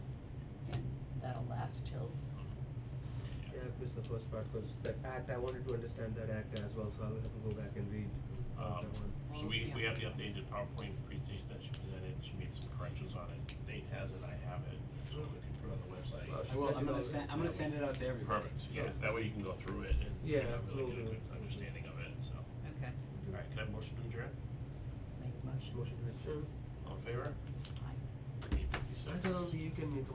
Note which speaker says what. Speaker 1: that'll last till,
Speaker 2: Yeah.
Speaker 3: Yeah, I missed the first part, cause that act, I wanted to understand that act as well, so I'll have to go back and read that
Speaker 2: Um,
Speaker 3: one.
Speaker 2: so we, we have the updated PowerPoint presentation that she presented, she made some corrections on it, Nate has it, I have it, so if you put it on the website.
Speaker 3: Well, she
Speaker 4: I will,
Speaker 3: sent
Speaker 4: I'm
Speaker 3: it
Speaker 4: gonna
Speaker 3: already.
Speaker 4: send, I'm gonna send it out to everybody.
Speaker 2: Perfect, yeah, that way you can go through it and you
Speaker 3: Yeah,
Speaker 2: know,
Speaker 3: will
Speaker 2: really get a
Speaker 3: do.
Speaker 2: good understanding of it, so.
Speaker 1: okay,
Speaker 2: Alright, can I have a motion to adjourn?
Speaker 1: make a motion.
Speaker 3: Motion to adjourn.
Speaker 2: All in favor?
Speaker 1: Aye.
Speaker 2: Eight fifty-six.
Speaker 3: I thought only you can make a